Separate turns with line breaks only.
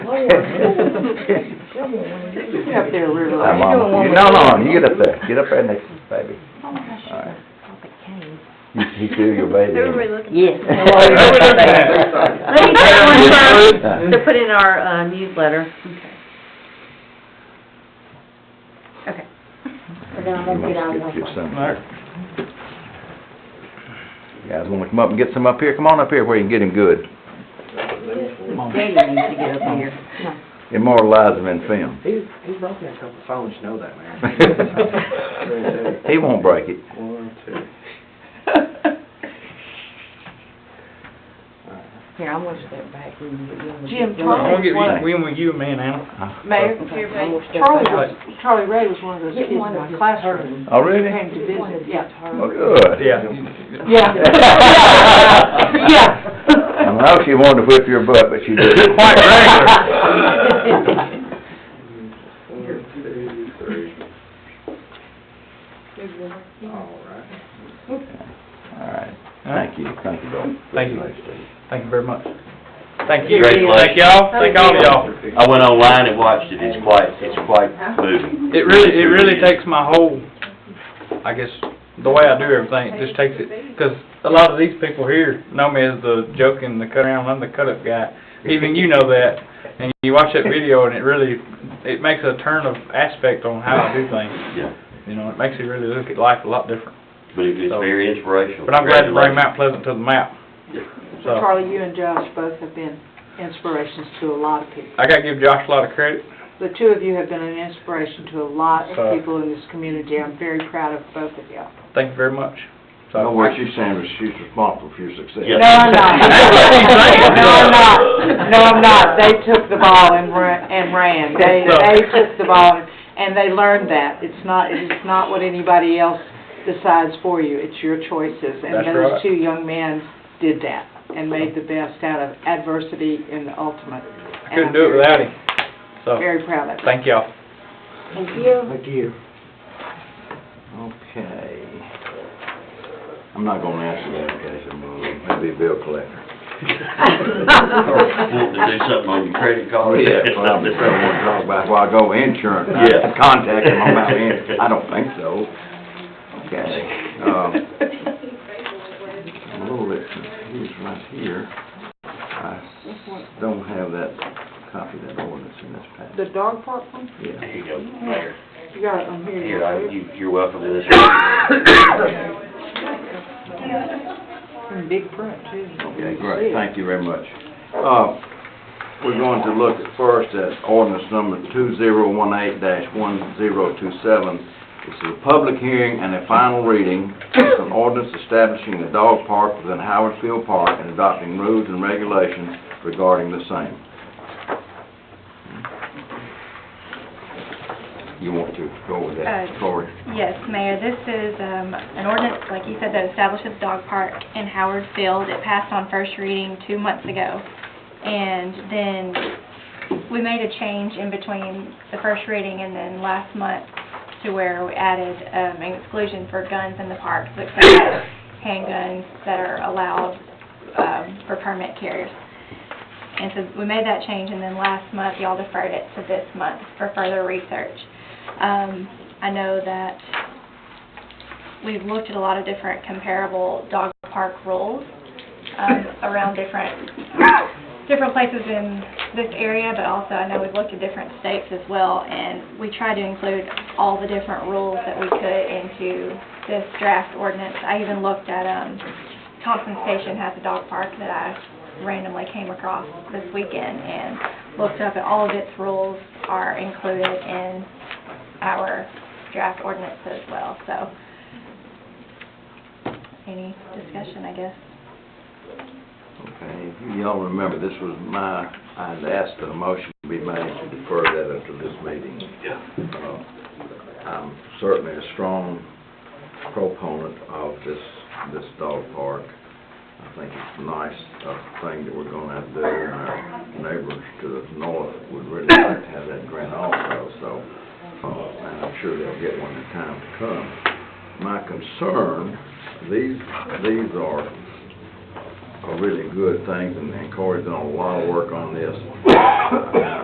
Get up there, River.
I'm on, you- no, no, you get up there, get up there next to the baby. Alright. You, you feel your baby.
Everybody looking.
Yes.
Let me take one first
Yeah.
to put in our uh, newsletter.
Okay.
And then I'm
You
gonna
must
get out of
get-
my
get
way.
some. You Guys wanna come up and get some up here? Come on up here where you can get him good.
Daddy needs to get up here.
Immortalize him in film.
He's, he's broken a couple phones, you know that, man.
He won't break it.
One, two.
Here, I'm gonna step back and get you.
Jim,
I'll
Charlie
give you-
was one, when you a man, Al?
Mayor, Charlie was, Charlie Ray was one of those
Get
kids in
one of
my
his
classroom.
Oh, really?
Came to visit,
Oh,
yeah.
good.
Yeah. Yeah.
I don't know if she wanted to whip your butt, but she did.
Quite
regular.
One, two, three. All right.
Alright, thank you, thank you, Bill.
Thank you. Thank you very much. Thank you,
Great
thank y'all, thank all of y'all.
I went online and watched it, it's quite, it's quite moving.
It really, it really takes my whole, I guess, the way I do everything, it just takes it, because a lot of these people here know me as the joke and the cut around, I'm the cut-up guy. Even you know that, and you watch that video and it really, it makes a turn of aspect on how I do things,
Yeah,
you know, it makes you really look at life a lot different.
but it was very inspirational.
But I'm glad to bring Mount Pleasant to the map,
So
so.
Charlie, you and Josh both have been inspirations to a lot of people.
I gotta give Josh a lot of credit,
The two of you have been an inspiration to a lot of
Uh,
So-
people in this community. I'm very proud of both of you.
thank you very much. So-
No, what she's saying is she's responsible for your success.
Yeah.
No, I'm not.
That's what she's saying.
No, I'm not. No, I'm not. They took the ball and ran, and ran. They,
No.
they took the ball and- and they learned that. It's not, it's not what anybody else decides for you. It's your choices. And
That's
those
right.
two young men did that and made the best out of adversity and the ultimate.
I couldn't do it without him, so,
Very proud of it.
thank y'all.
Thank you.
Thank you. Okay. I'm not gonna answer that, okay, so move, maybe a bill collector.
Want to do something on your credit
Oh,
card?
yeah,
It's
well, I
not
just don't wanna talk about, well, I go insurance,
Yeah.
I contact them about insurance, I don't think so. Okay, um, a little bit confused right here. I s- don't have that copy of that ordinance in this package.
The dog park one,
Yeah.
There you go, Mayor.
you got it on here.
Here, I, you, you're welcome to this.
In big print too.
Okay, great, thank you very much. Uh, We're going to look at first at ordinance number 2018-1027. This is a public hearing and a final reading. It's an ordinance establishing a dog park within Howard Field Park and adopting rules and regulations regarding the same. You want to go with that,
Uh,
Cory?
Yes, Mayor, this is um, an ordinance, like you said, that establishes dog park in Howard Field. It passed on first reading two months ago. And then we made a change in between the first reading and then last month to where we added um, an exclusion for guns in the park, so except handguns that are allowed um, for permit carriers. And so we made that change, and then last month, y'all deferred it to this month for further research. Um, I know that we've looked at a lot of different comparable dog park rules um, around different, different places in this area, but also I know we've looked at different states as well, and we tried to include all the different rules that we could into this draft ordinance. I even looked at, um, Thompson Station has a dog park that I randomly came across this weekend and looked up, and all of its rules are included in our draft ordinance as well, so. Any discussion, I guess?
Okay, if y'all remember, this was my, I'd asked that a motion be made to defer that until this meeting. Uh, I'm certainly a strong proponent of this, this dog park. I think it's a nice uh, thing that we're gonna have to do, and our neighbors to the north would really like to have that grant also, so, uh, and I'm sure they'll get one in time to come. My concern, these, these are are really good things, and and Corey's done a lot of work on this.